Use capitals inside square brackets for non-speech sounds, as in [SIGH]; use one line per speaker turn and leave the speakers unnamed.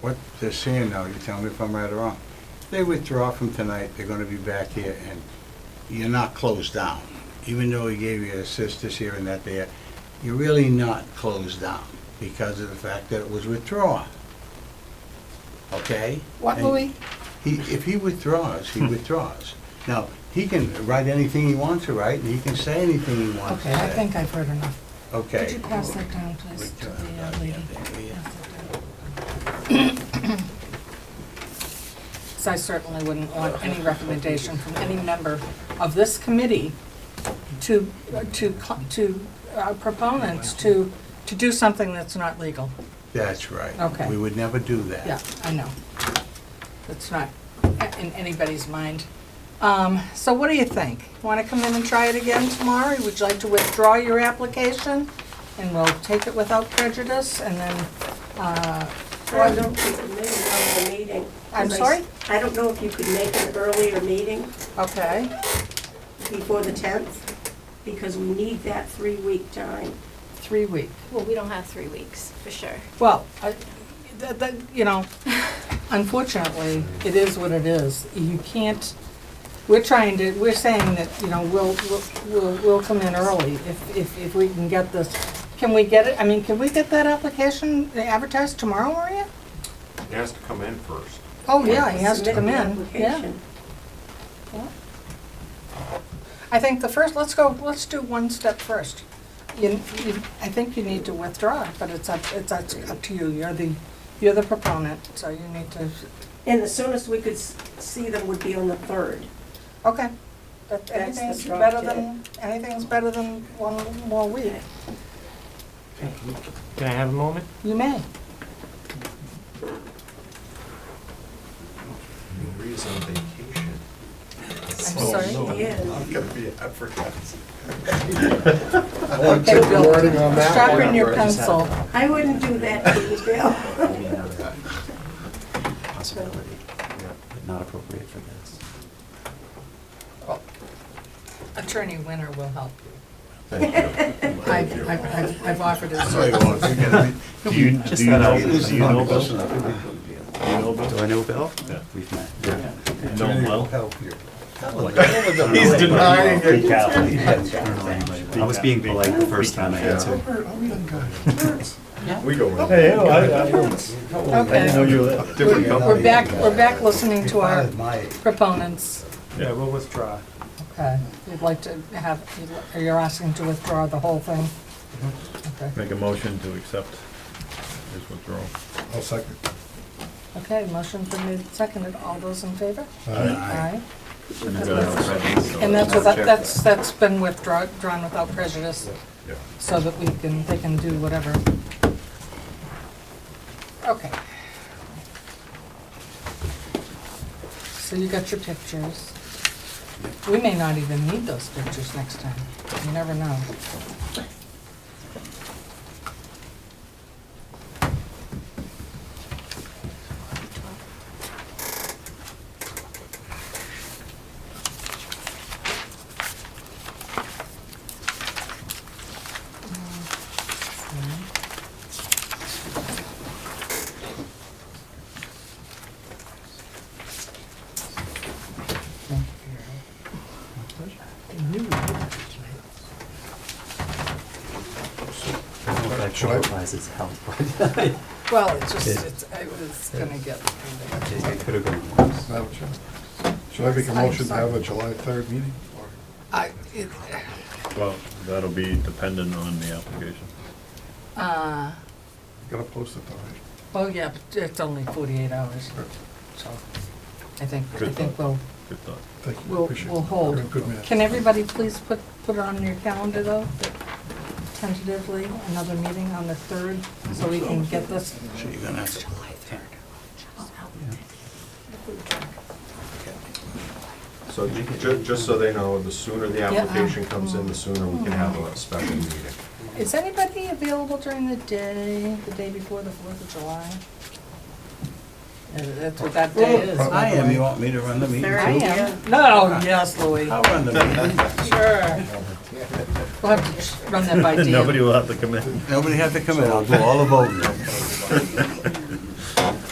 what they're saying now, you tell me if I'm right or wrong, they withdraw from tonight, they're gonna be back here, and you're not closed down. Even though he gave you assist this here and that there, you're really not closed down because of the fact that it was withdrawn. Okay?
What,
And-
Louis?
He, if he withdraws, he withdraws. Now, he can write anything he wants to write, and he can say anything he wants to
Okay,
say.
I think I've heard enough.
Okay.
Could you pass that down, please, to the uh, lady? Pass that down. Because I certainly wouldn't want any recommendation from any member of this committee to, uh, to, cl- to uh, proponents to, to do something that's not legal.
That's right.
Okay.
We would never do that.
Yeah, I know. It's not in anybody's mind. Um, So what do you think? Want to come in and try it again tomorrow? Would you like to withdraw your application? And we'll take it without prejudice and then, uh,
Or I don't think you could make another meeting.
I'm sorry?
I don't know if you could make an earlier meeting
okay,
before the 10th, because we need that three-week time.
three week.
Well, we don't have three weeks, for sure.
Well, I- that, that, you know, unfortunately, it is what it is. You can't, we're trying to, we're saying that, you know, we'll, we'll- we'll, we'll come in early if, if, if we can get this. Can we get it, I mean, can we get that application advertised tomorrow, Maria?
He has to come in first.
Oh, yeah, he has to
Submit
come
the
in, yeah.
application.
I think the first, let's go, let's do one step first. You, you, I think you need to withdraw, but it's up, it's up up to you. You're the, you're the proponent, so you need to,
And the soonest we could s- see them would be on the 3rd.
Okay. But
That's the
anything's
drop
better
dead.
than, anything's better than one more week.
Can I have a moment?
You may.
Maria's on vacation.
I'm sorry.
Yeah.
I'm gonna be advertising.
I want
Okay,
to
Bill.
wording on that one.
Sharpen your pencil.
I wouldn't do that to you, Bill.
Possibility, but not appropriate for this.
Attorney Winter will help you.
Thank you.
I've, I've- I've, I've offered his
So you won't, you gotta be-
[LAUGHS] Do you, do you know, do you know Bill?
Listen up.
Do I know Bill? We've met.
Attorney will help you. [LAUGHS]
He's
denying it.
I was being polite the first time I answered.
We go in.
Hey, I,
Okay.
you
Different
We're back, we're back listening to our
If I was my age,
proponents.
yeah, we'll withdraw.
Okay. You'd like to have, you're asking to withdraw the whole thing? Okay.
Mm-hmm.
Make a motion to accept his withdrawal.
I'll second.
Okay, motion's been made, and seconded. All those in favor?
uh,
Aye. And that's without, that's, that's been withdrawn, drawn without prejudice,
Yeah.
so that we can, they can do whatever. Okay. So you got your pictures. We may not even need those pictures next time, you never know. Thank you.
I
Should I-
qualifies as [LAUGHS] help, but I
Well, it's just, it's, I was gonna get.
think it could have gone worse.
Madam Chair, should I make a motion to have a July 3rd meeting? or-
I, it,
Well, that'll be dependent on the application.
uh,
Gotta post it though.
Well, yeah, but it's only forty-eight hours, so I think, I
Good
think
thought.
we'll,
Good thought.
Thank you,
we'll,
appreciate it.
we'll hold.
You're a good man.
Can everybody please put, put it on your calendar though? that Tentatively, another meeting on the third, so we can get this.
So you're gonna have to.
So ju- just so they know, the sooner the
Yeah. Uh-huh.
application comes in, the sooner we can have a special meeting.
Is anybody available during the day, the day before the Fourth of July? Uh, That's what that day is.
I am, you want me to run the meeting too?
There
I am. No, yes, Louis,
I'll run the [LAUGHS] meeting.
sure. We'll have to run that by Dan.
Nobody will have to come in.
[LAUGHS] Nobody have to come in, I'll do all the voting.